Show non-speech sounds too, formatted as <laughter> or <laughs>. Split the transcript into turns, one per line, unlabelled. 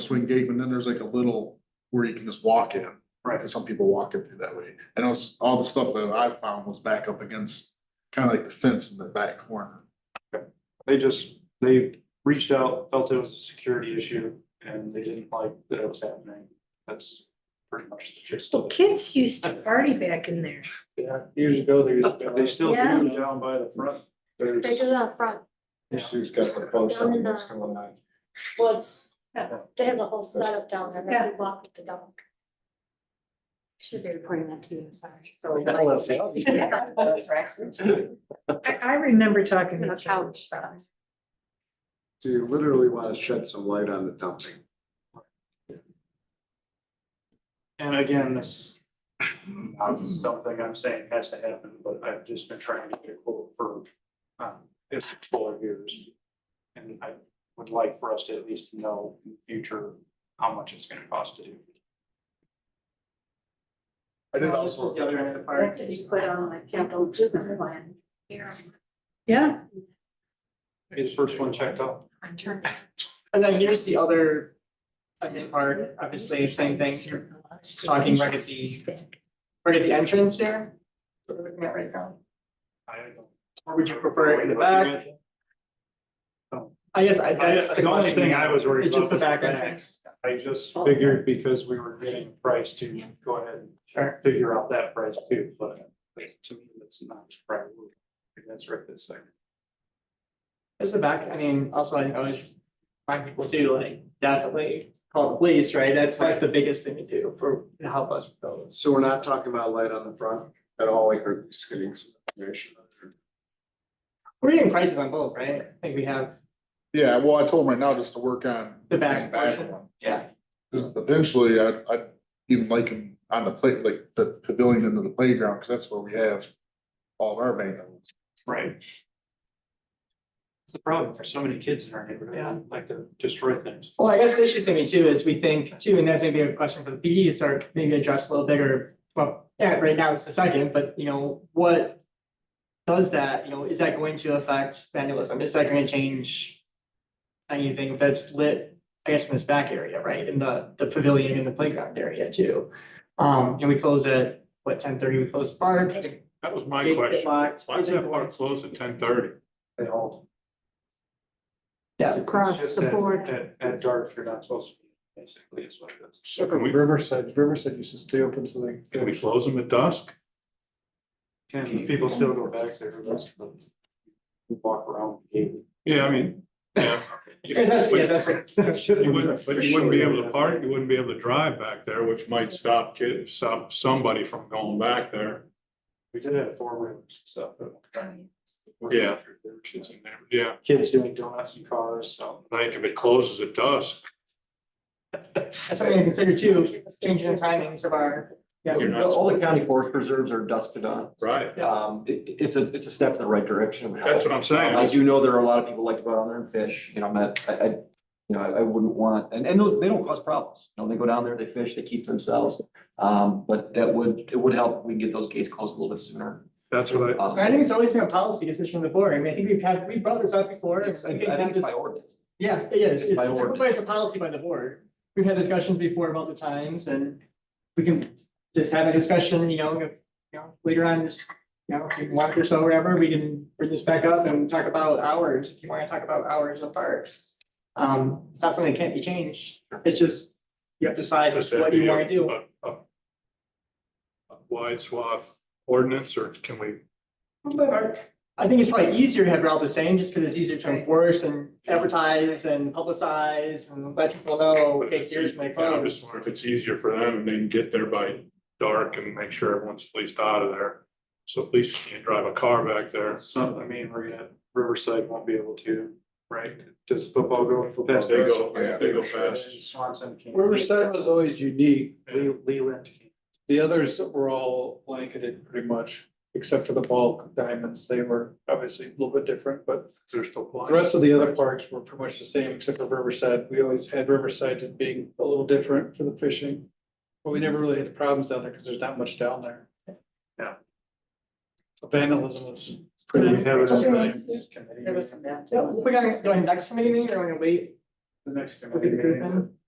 swing gate, and then there's like a little where you can just walk in.
Right.
And some people walk in through that way. And it was, all the stuff that I found was back up against kind of like the fence in the back corner.
They just, they reached out, felt it was a security issue, and they didn't like that it was happening. That's pretty much the gist of it.
Kids used to party back in there.
Yeah, years ago, they. They still
Yeah.
do down by the front. There's-
They do it out front,
Sue's got the post, I
Down in
mean, it's
the-
going on.
well, it's, they have the whole setup down there, that we walk with the dog. Should be reporting that to you, sorry.
So.
Well, that's
<laughs>
the obvious.
I, I remember talking
On
to
the
Couch.
couch.
So you literally want to shed some light on the dumping.
And again, this, not something I'm saying has to happen, but I've just been trying to get a quote for, um, if it's four years. And I would like for us to at least know in the future how much it's gonna cost to do.
I did also,
the other end of the
That could be put on the capital improvement plan.
Here,
Yeah,
Is first one checked out?
I'm turning.
And then here's the other, I think, part, obviously, same thing, you're talking right at the- right at the entrance here. What are we looking at right now?
I don't know.
Or would you prefer it in the back? I guess I,
I-
that's the
The only thing I was worried
It's just
about
the
was the back.
back entrance.
I just
Oh.
figured because we were getting a price to go ahead and figure out that price too, but to me, that's not right. That's right this second.
It's the back, I mean, also I always find people do like definitely call the police, right? That's, that's the biggest thing to do for, to help us with those.
So we're not talking about light on the front at all, like we're just getting some information.
We're getting prices on both, right? I think we have,
yeah, well, I told him right now just to work on.
The back portion.
one.
yeah,
Cause eventually I, I'd even like him on the play, like the pavilion into the playground, cause that's where we have all of our maintenance.
Right. It's the problem for so many kids in our neighborhood,
Yeah.
They like to destroy things.
Well, I guess the issue to me too is we think too, and that's maybe a question for the PD, start maybe address a little bigger, well, yeah, right now it's the second, but you know, what? Does that, you know, is that going to affect vandalism? Is that going to change? Anything that's lit, I guess in this back area, right, in the the pavilion and the playground area too? Um, and we close at, what, ten thirty, we close the parks?
That was
Eight
my
o'clock.
question. Why does that park close at ten thirty?
They all.
It's
Yeah,
it's
across
just
the
that-
board.
At, at dark, you're not supposed to be, basically, is what it is.
So can we,
Riverside, Riverside used to stay open, so they.
can we close them at dusk?
Can people still go back there? That's the. Walk around. the gate.
Yeah, I mean,
<laughs>
yeah.
because that's, yeah,
<laughs>
that's.
You wouldn't, but you wouldn't be able to park, you wouldn't be able to drive back there, which might stop kids, stop somebody from going back there.
We did have four rooms, so.
Yeah. Kids in there, yeah.
Kids doing donuts in cars, so.
Like if it closes at dusk,
That's something to consider too, changing the timings of our, yeah.
You're not-
All the county forest preserves are dusted on.
right?
Yeah.
Um, it, it's a, it's a step in the right direction.
That's what I'm saying.
I do know there are a lot of people like to go down there and fish, you know, I'm not- I, I, you know, I I wouldn't want, and, and they don't cause problems. You know, they go down there, they fish, they keep themselves. Um, but that would, it would help if we can get those gates closed a little bit sooner.
That's what I,
Um,
I think it's always been a policy decision of the board. I mean, I think we've had, we brought this up before.
It's, I
I
I
think that
think it's
just-
by ordinance.
Yeah, it is.
It's by
It's a-
ordinance.
it's a policy by the board. We've had discussions before about the times and we can just have a discussion, you know, if, you know, later on, just, you know, if you want or so, whatever, we can bring this back up and talk about hours, if you want to talk about hours of parks. Um, it's not something that can't be changed. It's just, you have to decide
just.
what you want to do.
a- a- a Wide swath ordinance, or can we
I think it's probably easier to have it all the same, just because it's easier to enforce and advertise and publicize and let people know,
But if
hey,
it's
here's
eas-
my
yeah, I'm just
clothes.
wondering if it's easier for them and they can get there by dark and make sure everyone's at least out of there. So police can't drive a car back there.
Some, I mean, we're gonna, Riverside won't be able to, right? Does football go past?
They go-
Riverside?
they go past.
Swanson can't.
Riverside was always unique.
Le- Leland can't.
The others were all blanketed pretty much, except for the bulk diamonds. They were obviously a little bit different, but
They're still
uh,
blind.
the rest of the other parks were pretty much the same, except for Riverside. We always had Riverside as being a little different for the fishing. But we never really had the problems down there because there's not much down there.
Yeah.
Vandalism was
Do
pretty.
we have it on
Something
the
else?
next committee?
There was some bad.
Oh, Yeah, we're gonna go ahead next meeting or we're gonna wait
The next
for the
committee
group
meeting,
then?